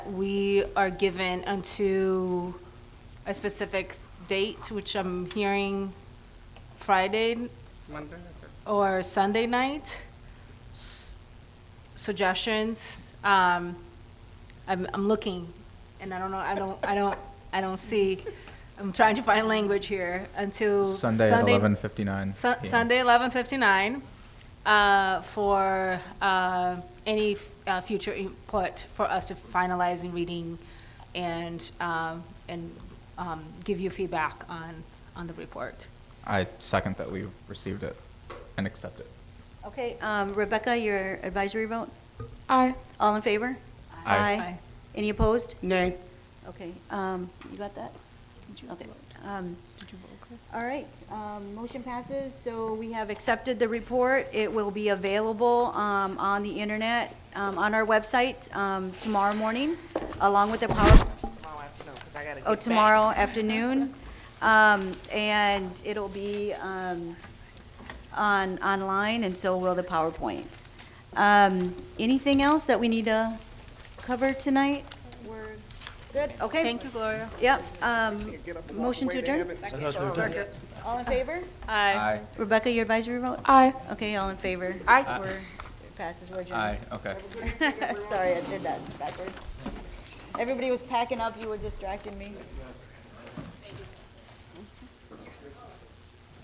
We are given unto a specific date, which I'm hearing Friday Monday, or Sunday night. S- Suggestions, um, I'm, I'm looking, and I don't know, I don't, I don't, I don't see, I'm trying to find language here until. Sunday at eleven fifty nine. Su- Sunday, eleven fifty-nine, uh, for, uh, any, f- uh, future input for us to finalize in reading and, um, and, um, give you feedback on, on the report. I second that we received it and accept it. Okay, um, Rebecca, your advisory vote? Aye. All in favor? Aye. Aye. Any opposed? Nay. Okay, um, you got that? Okay. Um, All right, um, motion passes, so we have accepted the report. It will be available, um, on the internet, um, on our website, um, tomorrow morning, along with the power, tomorrow afternoon, 'cause I gotta get oh, back. tomorrow afternoon. Um, and it'll be, um, on, online, and so will the PowerPoint. Um, anything else that we need to cover tonight? We're good, okay? Thank you, Gloria. Yep, um, Get up and walk motion to away, they adjourn? haven't- Second. All in favor? Aye. Rebecca, your advisory vote? Aye. Okay, all in favor? Aye. We're, it passes, we're adjourned. Aye, okay. Sorry, I did that backwards. Everybody was packing up, you were distracting me.